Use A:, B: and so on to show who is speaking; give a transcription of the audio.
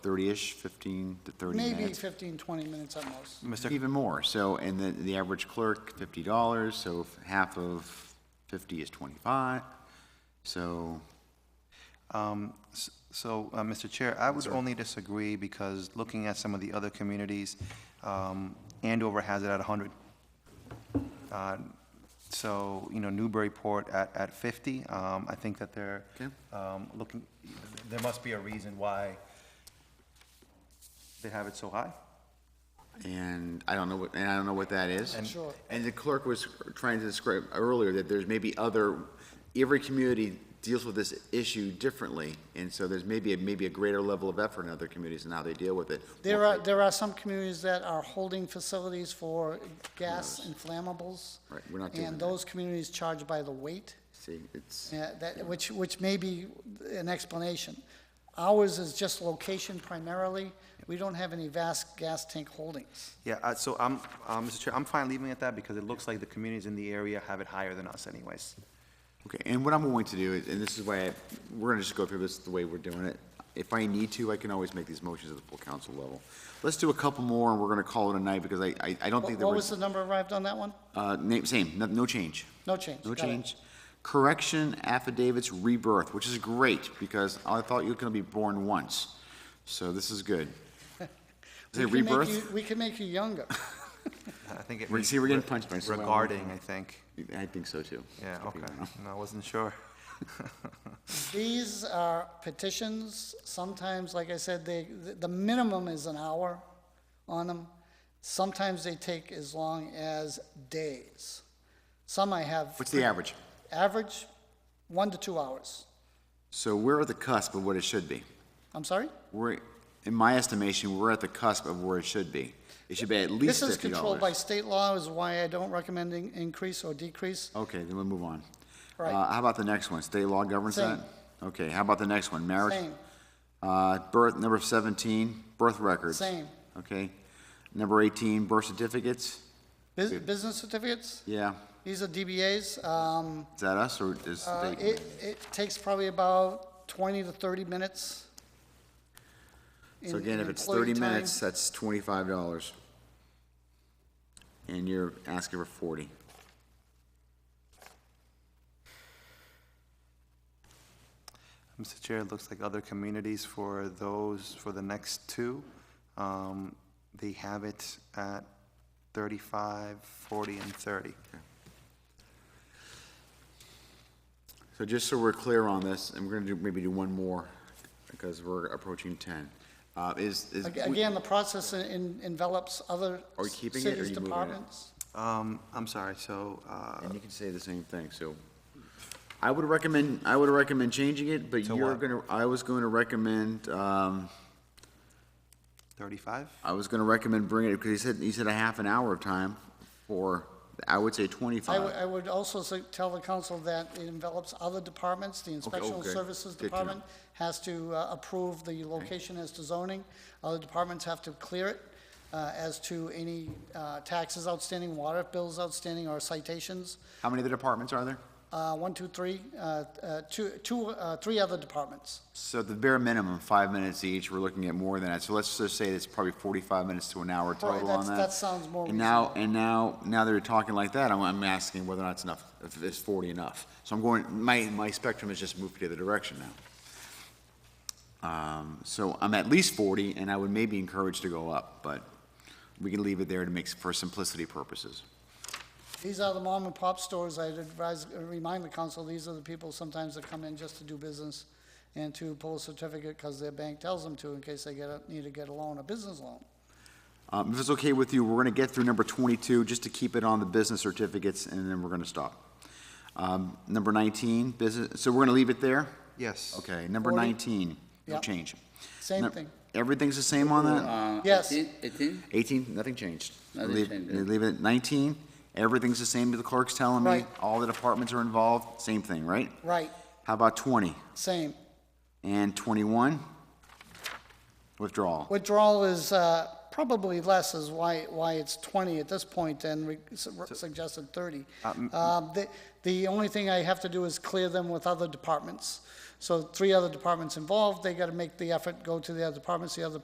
A: thirty-ish, fifteen to thirty
B: Maybe
A: minutes?
B: 15, 20 minutes at most.
A: Even more, so, and the, the average clerk, fifty dollars, so if half of fifty is twenty-five, so,
C: Um, s- So, uh, Mr. Chair, I would only disagree because looking at some of the other communities, um, Andover has it at 100. Uh, So, you know, Newburyport at at 50, um, I think that they're
A: Okay.
C: um, looking, there must be a reason why they have it so high.
A: and I don't know what, and I don't know what that is.
B: Sure.
A: And the clerk was trying to describe earlier that there's maybe other, every community deals with this issue differently, and so there's maybe, a- maybe a greater level of effort in other communities and how they deal with it.
B: There are, there are some communities that are holding facilities for gas and flammables.
A: Right, we're not doing
B: And
A: that.
B: those communities charge by the weight.
A: See, it's,
B: Yeah, that, which, which may be an explanation. Ours is just location primarily. We don't have any vast gas tank holdings.
C: Yeah, uh, so I'm, uh, Mr. Chair, I'm fine leaving it at that because it looks like the communities in the area have it higher than us anyways.
A: Okay, and what I'm going to do, is, and this is why, I- we're gonna just go through this the way we're doing it. If I need to, I can always make these motions at the full council level. Let's do a couple more, and we're gonna call it a night, because I, I, I don't think
B: What
A: there
B: what was
A: was,
B: the number arrived on that one?
A: uh, name, same, no, no change.
B: No change.
A: No
B: got it.
A: change. Correction affidavits rebirth, which is great, because I thought you were gonna be born once, so this is good. Is
B: We
A: it
B: can make
A: rebirth?
B: you- We can make you younger.
C: I think it
A: We're-
C: means
A: see, we're getting
C: re-
A: punched by someone.
C: Regarding, I think.
A: I think so too.
C: Yeah,
A: Just
C: okay.
A: keep it on.
C: No, I wasn't sure.
B: These are petitions, sometimes, like I said, they, the minimum is an hour on them. Sometimes they take as long as days. Some I have.
A: What's the average?
B: Average, one to two hours.
A: So we're at the cusp of what it should be.
B: I'm sorry?
A: We're, in my estimation, we're at the cusp of where it should be. It should be at least
B: This is
A: fifty
B: controlled by
A: dollars.
B: state law, is why I don't recommend in- increase or decrease.
A: Okay, then we'll move on.
B: Right.
A: Uh, how about the next one? State law governs
B: Same.
A: that? Okay, how about the next one? Marriage?
B: Same,
A: Uh, birth, number seventeen, birth records.
B: same.
A: Okay. Number eighteen, birth certificates.
B: Bus- Business certificates,
A: Yeah,
B: these are DBAs. Um,
A: is that us or is
B: uh,
A: the
B: It,
A: state?
B: it takes probably about 20 to 30 minutes.
A: So
B: in-
A: again,
B: in
A: if it's
B: employee
A: thirty
B: time.
A: minutes, that's twenty-five dollars. And you're asking for forty.
C: Mr. Chair, it looks like other communities for those, for the next two, um, they have it at 35, 40, and 30.
A: So just so we're clear on this, and we're gonna do, maybe do one more, because we're approaching ten, uh, is, is.
B: Ag- Again, the process en- en- envelops other
A: Are we
B: s-
A: keeping it, or are
B: cities'
A: you moving it?
B: departments.
C: Um, I'm sorry, so, uh,
A: And you can say the same thing, so. I would recommend, I would recommend changing it, but
C: To
A: you're
C: what?
A: gonna, I was going to recommend, um,
C: 35?
A: I was gonna recommend bringing it, because he said, he said a half an hour of time for, I would say
B: I would,
A: twenty-five.
B: I would also say- tell the council that it envelops other departments. The Inspection
A: okay.
B: Services
A: Good to know.
B: Department has to uh, approve the location as to zoning. Other departments have to clear it uh, as to any uh, taxes outstanding, water bills outstanding, or citations.
A: How many of the departments are there?
B: Uh, One, two, three, uh, uh, two, two, uh, three other departments.
A: So the bare minimum, five minutes each, we're looking at more than that, so let's just say it's probably forty-five minutes to an hour
B: Right,
A: total on
B: that's-
A: that.
B: that sounds more
A: And now, and now, now that you're talking like that, I'm, I'm asking whether or not it's enough, if it's forty enough. So I'm going, my, my spectrum has just moved to the other direction now. Um, so I'm at least forty, and I would maybe encourage to go up, but we can leave it there to make, for simplicity purposes.
B: These are the mom and pop stores, I'd advise, uh, remind the council, these are the people sometimes that come in just to do business and to pull a certificate because their bank tells them to in case they get a, need to get a loan, a business loan.
A: Um, if it's okay with you, we're gonna get through number twenty-two, just to keep it on the business certificates, and then we're gonna stop. Um, number nineteen, business, so we're gonna leave it there?
C: Yes.
A: Okay, number
B: Forty.
A: nineteen, no
B: Yep.
A: change.
B: Same
A: No-
B: thing.
A: Everything's the same on that?
D: Uh,
B: Yes.
D: 18, 18?
A: Eighteen, nothing changed.
D: Nothing
A: Leave-
D: changed, yeah.
A: Leave it at nineteen, everything's the same, the clerk's telling me.
B: Right.
A: All the departments are involved, same thing, right?
B: Right,
A: How about twenty
B: same.
A: and twenty-one? Withdrawal.
B: Withdrawal is, uh, probably less is why, why it's 20 at this point and re- su- suggested 30. Um, The, the only thing I have to do is clear them with other departments. So three other departments involved, they got to make the effort, go to the other departments, the other